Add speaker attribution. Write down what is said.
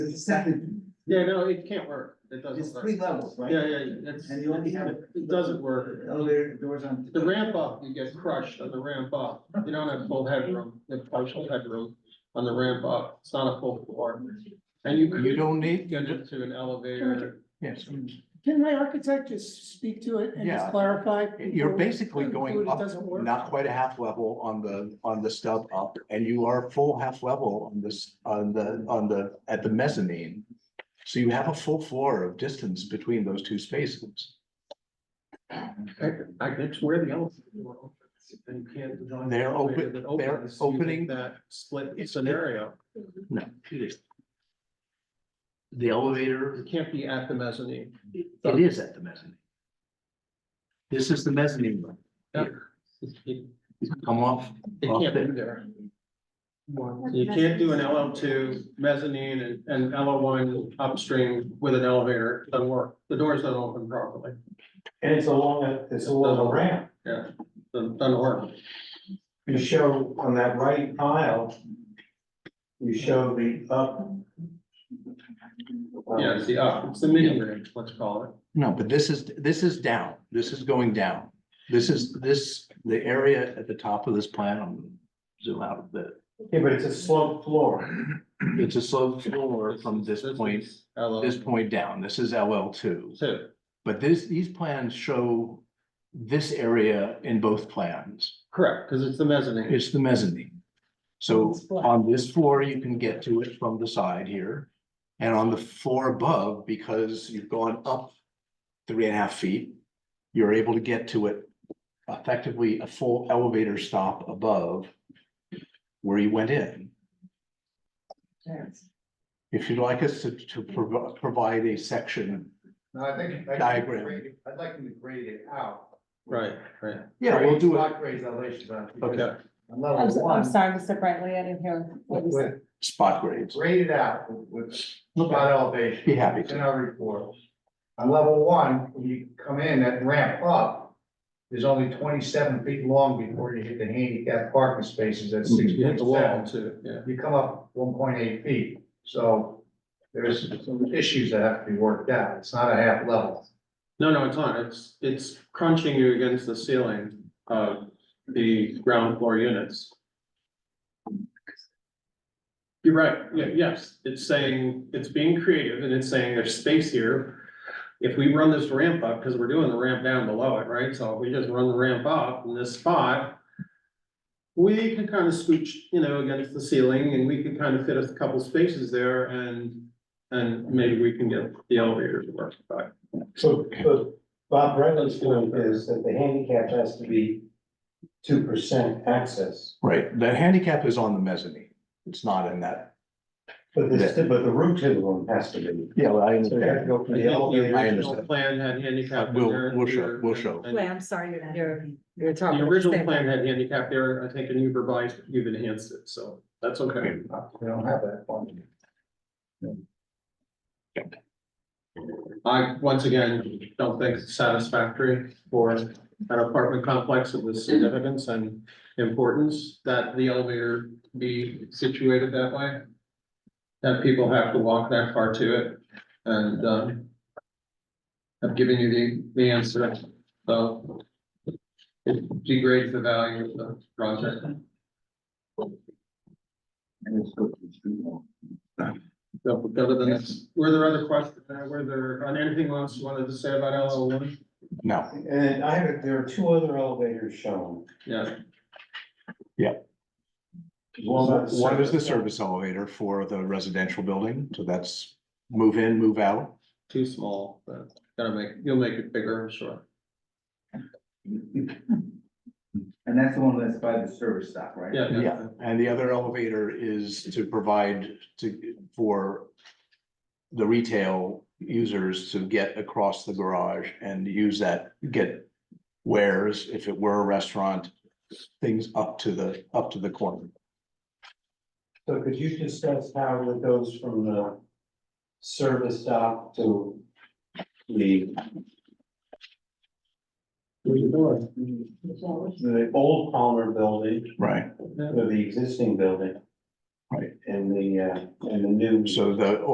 Speaker 1: It's a second,
Speaker 2: Yeah, no, it can't work. It
Speaker 1: it's
Speaker 2: doesn't work.
Speaker 1: three levels,
Speaker 2: Yeah,
Speaker 1: right?
Speaker 2: yeah, it's,
Speaker 1: And you only have. a-
Speaker 2: it doesn't work.
Speaker 1: Elevator doors on.
Speaker 2: The ramp up, you get crushed on the ramp up. You don't have full headroom, the partial headroom on the ramp up. It's not a full floor. And you
Speaker 3: You
Speaker 2: could
Speaker 3: don't need,
Speaker 2: get into an elevator.
Speaker 3: yes,
Speaker 4: Can my architect just speak to it and just
Speaker 3: Yeah.
Speaker 4: clarify?
Speaker 3: you're basically going
Speaker 4: It
Speaker 3: up,
Speaker 4: doesn't work.
Speaker 3: not quite a half level on the, on the stub up, and you are full half level on this, on the, on the, at the mezzanine. So you have a full floor of distance between those two spaces.
Speaker 2: I, I, it's where the elevator. were. And you can't design an
Speaker 3: They're open-
Speaker 2: elevator that
Speaker 3: they're
Speaker 2: opens using
Speaker 3: opening-
Speaker 2: That split
Speaker 3: It's-
Speaker 2: scenario.
Speaker 3: No.
Speaker 5: The elevator,
Speaker 2: It can't be at the mezzanine.
Speaker 5: it is at the mezzanine. This is the mezzanine room. here.
Speaker 2: It
Speaker 5: Come off,
Speaker 2: it
Speaker 5: Off
Speaker 2: can't
Speaker 5: there.
Speaker 2: be there. You can't do an LL two mezzanine and, and LL one upstream with an elevator, it doesn't work, the doors don't open properly,
Speaker 6: And it's along a, it's along a ramp.
Speaker 2: doesn't, doesn't work.
Speaker 6: You show on that right aisle, you show the up.
Speaker 2: Yeah, it's the up, it's the mini range, let's call it.
Speaker 3: No, but this is, this is down, this is going down. This is, this, the area at the top of this plan, I'm zoom out a bit.
Speaker 6: Yeah, but it's a sloped floor.
Speaker 3: It's a slope floor from this point,
Speaker 2: is LL
Speaker 3: this point down, this is LL two.
Speaker 2: two,
Speaker 3: But this, these plans show this area in both plans.
Speaker 2: correct, because it's the mezzanine,
Speaker 3: It's the mezzanine. So
Speaker 4: It's flat.
Speaker 3: on this floor, you can get to it from the side here. And on the floor above, because you've gone up three and a half feet, you're able to get to it effectively a full elevator stop above where you went in. If you'd like us to, to provi- provide a section,
Speaker 7: No, I think. I think
Speaker 3: Diagram.
Speaker 7: grade it- I'd like them to grade it out.
Speaker 2: right, right,
Speaker 3: yeah, we'll do it.
Speaker 7: Block grades elevations on. it, because
Speaker 2: okay,
Speaker 7: On
Speaker 8: I'm,
Speaker 7: level
Speaker 8: s- I'm
Speaker 7: one,
Speaker 8: sorry, Mr. Brantley, I didn't hear what you said.
Speaker 3: Spot grades.
Speaker 7: grade it out with with
Speaker 3: Okay.
Speaker 7: spot elevation.
Speaker 3: Be happy
Speaker 7: It's
Speaker 3: to.
Speaker 7: in our report. On level one, when you come in, that ramp up is only twenty-seven feet long before you hit the handicap parking spaces at six
Speaker 2: you hit
Speaker 7: point
Speaker 2: the wall
Speaker 7: seven.
Speaker 2: too, yeah.
Speaker 7: You come up one point eight feet, so there's some issues that have to be worked out. It's not a half level.
Speaker 2: No, no, it's not, it's, it's crunching you against the ceiling of the ground floor units. You're right, yeah, yes, it's saying, it's being creative and it's saying there's space here. If we run this ramp up, because we're doing the ramp down below it, right, so if we just run the ramp up in this spot. We can kind of scooch, you know, against the ceiling and we can kind of fit a couple spaces there and, and maybe we can get the elevator to work, but.
Speaker 6: So, but Bob Bradley's point is that the handicap has to be two percent access.
Speaker 3: Right, the handicap is on the mezzanine. It's not in that.
Speaker 6: But this, but the route to the room has to be.
Speaker 3: Yeah, I
Speaker 6: So you have to go from the
Speaker 2: The
Speaker 6: elevator.
Speaker 2: original plan had handicap.
Speaker 3: We'll-
Speaker 2: there,
Speaker 3: we'll show-
Speaker 2: here,
Speaker 3: we'll
Speaker 2: and-
Speaker 3: show.
Speaker 2: and
Speaker 8: Wait, I'm sorry, you're, you're, you're
Speaker 2: The
Speaker 8: talking.
Speaker 2: original plan had handicap there, I think, and you've revised, you've enhanced it, so that's okay.
Speaker 7: We don't have that one.
Speaker 2: I, once again, don't think it's satisfactory for an apartment complex of this significance and importance that the elevator be situated that way. That people have to walk that far to it and, um, I've given you the, the answer, so it degrades the value of the project. So we'll go to the next, were there other questions, uh, were there, on anything else you wanted to say about LL one?
Speaker 3: No,
Speaker 6: And I have, there are two other elevators shown.
Speaker 2: Yeah,
Speaker 3: one one is the service elevator for the residential building, so that's move in, move out.
Speaker 2: too small, but gotta make, you'll make it bigger, I'm sure.
Speaker 1: And that's the one that's by the service stop, right?
Speaker 2: Yeah, yeah,
Speaker 3: Yeah, and the other elevator is to provide to, for the retail users to get across the garage and use that, get wares, if it were a restaurant, things up to the, up to the corner.
Speaker 6: So could you discuss how it goes from the service dock to the, the old Palmer building,
Speaker 3: Right.
Speaker 6: or the existing building?
Speaker 3: Right.
Speaker 6: And the, uh, and the new.
Speaker 3: So the